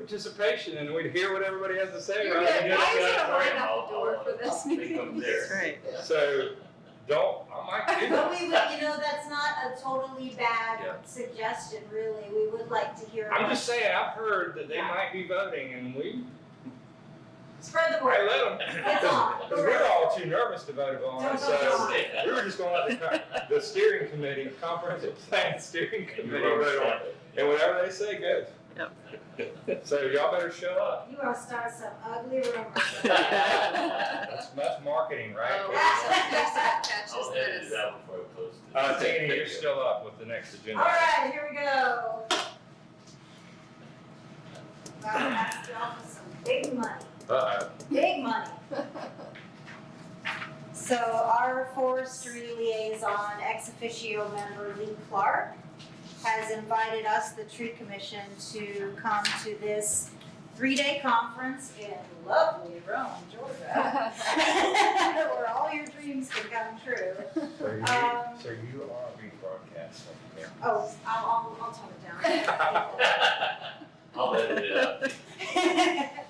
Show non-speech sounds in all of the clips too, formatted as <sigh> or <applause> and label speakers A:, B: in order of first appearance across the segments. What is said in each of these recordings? A: participation and we'd hear what everybody has to say.
B: You're
A: rather
B: good.
A: than
B: Why is
A: just-
B: it a line out the door for this
C: They come
B: meeting?
C: there.
D: right.
A: So, don't, I might do
E: But
A: that.
E: <laughs> we would, you know, that's not a totally
A: Yeah.
E: bad suggestion, really. We would like to hear.
A: I'm just saying, I've heard that they might be voting and we,
E: Spread the
A: I
E: word.
A: let them.
E: It's all.
C: <laughs>
A: Cause we're all too nervous to vote on it, so we were just gonna let the, co- the steering committee, comprehensive plan steering
C: You
A: committee
C: wrote
A: vote on it. And whatever they say goes. <laughs> So y'all better shut up.
E: You are starting some
A: <laughs>
E: ugly rumors.
C: that.
A: That's, that's marketing,
B: Oh,
A: right?
B: so there's that catches
C: I'll edit
B: this.
C: it out before I post it.
A: Uh, Tina, you're still up with the next
E: All
A: agenda.
E: right, here we go. Wow, that's off some big money.
A: Uh-oh.
E: big money. So our forestry liaison, ex officio member Lee Clark, has invited us, the tree commission, to come to this three-day conference in lovely Rome, Georgia. <laughs> Where all your dreams can come true.
A: So you,
E: Um,
A: so you are rebroadcasting here.
E: Oh, I'll, I'll, I'll tone it down. <laughs>
C: I'll edit it out.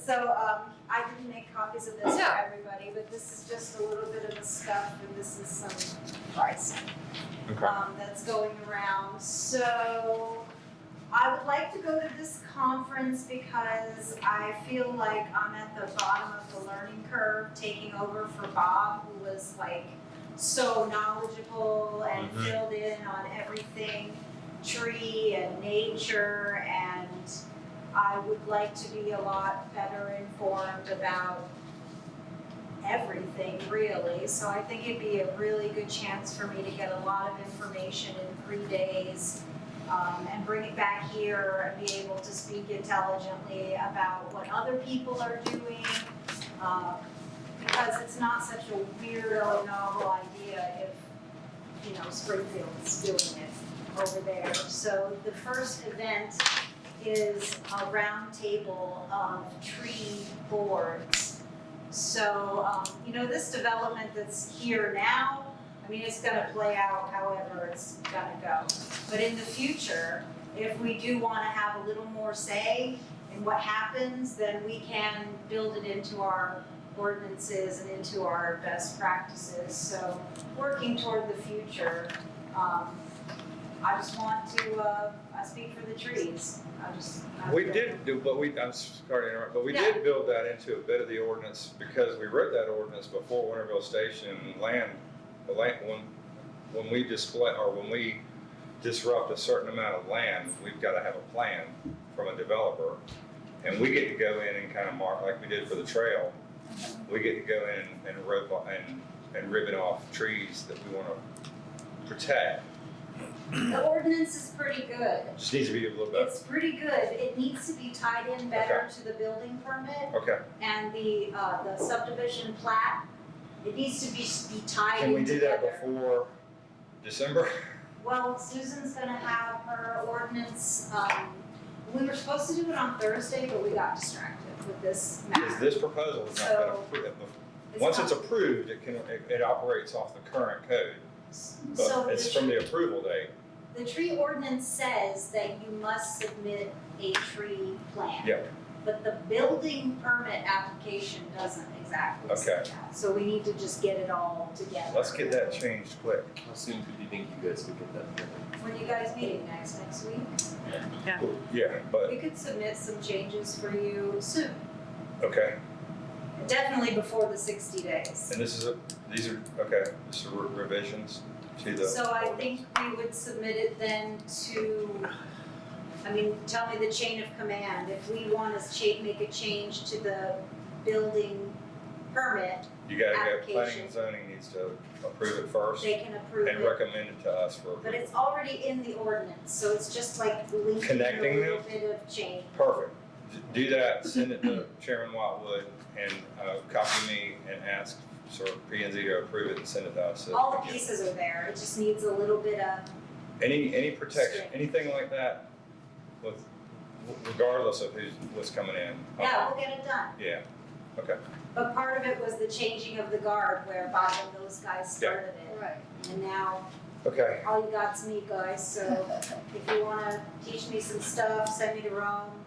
E: So, um, I didn't make copies of this for
B: Yeah.
E: everybody, but this is just a little bit of the stuff, and this is some pricing,
A: Okay.
E: um, that's going around, so. I would like to go to this conference because I feel like I'm at the bottom of the learning curve, taking over for Bob, who was like so knowledgeable and
A: Mhm.
E: filled in on everything tree and nature and I would like to be a lot better informed about everything really. So I think it'd be a really good chance for me to get a lot of information in three days um, and bring it back here and be able to speak intelligently about what other people are doing. um, because it's not such a weirdo novel idea if, you know, Springfield's doing it over there. So the first event is a roundtable of tree boards. So, um, you know, this development that's here now, I mean, it's gonna play out however it's gonna go. But in the future, if we do wanna have a little more say in what happens, then we can build it into our ordinances and into our best practices. So working toward the future, um, I just want to, uh, I speak for the trees. I just. I
A: We
E: feel-
A: did do, but we, I'm sorry to interrupt, but we did build that into a bit of the ordinance because we wrote that ordinance before Winterville Station land, the land, when, when we display, or when we disrupt a certain amount of land, we've got to have a plan from a developer. And we get to go in and kind of mark, like we did for the trail, we get to go in and rip, and, and ribbon off trees that we want to protect.
E: The ordinance is pretty good.
A: Just needs to be a little bit,
E: It's pretty good. It needs to be tied in better to the building permit
A: okay,
E: and the, uh, the subdivision plat. It needs to be, be tied
A: can we
E: in
A: do that
E: together.
A: before
E: <laughs>
A: December?
E: Well, Susan's gonna have her ordinance, um, we were supposed to do it on Thursday, but we got distracted with this
A: Is
E: matter.
A: this proposal is not gonna,
E: So-
A: appro- once it's
E: not-
A: approved, it can, it it operates off the current code,
E: So
A: but it's
E: the-
A: from the approval date.
E: The tree ordinance says that you must submit a tree plan.
A: Yep.
E: But the building permit application doesn't exactly say
A: Okay.
E: that, so we need to just get it all together.
A: Let's get that changed quick.
C: How soon do you think you guys could get that done?
E: When you guys meeting next, next week,
A: Yeah, but,
E: we could submit some changes for you soon,
A: okay,
E: definitely before the sixty days.
A: and this is a, these are, okay, this are re- revisions to the.
E: So I think we would submit it then to, I mean, tell me the chain of command, if we wanna cha- make a change to the building permit,
A: You gotta go, planning
E: application.
A: and zoning needs to approve it first
E: they can approve
A: and
E: it.
A: recommend it to us for
E: But
A: approval.
E: it's already in the ordinance, so it's just like linking a
A: Connecting
E: little
A: them?
E: bit of change.
A: Perfect. D- Do that, send it to Chairman Whitewood and, uh, copy me and ask sort of P and Z to approve it and send it to us. so
E: All
A: we
E: the
A: get-
E: pieces are there, it just needs a little bit of,
A: Any, any protection,
E: Straight.
A: anything like that, with, regardless of who's, what's coming in?
E: yeah, we'll get it done.
A: Yeah,
E: But part of it was the changing of the guard where Bob and those guys
A: Yeah.
E: started <laughs> it,
B: Right.
E: and now
A: okay,
E: all you got's me, guys, so if you wanna teach me some stuff, send me to Rome,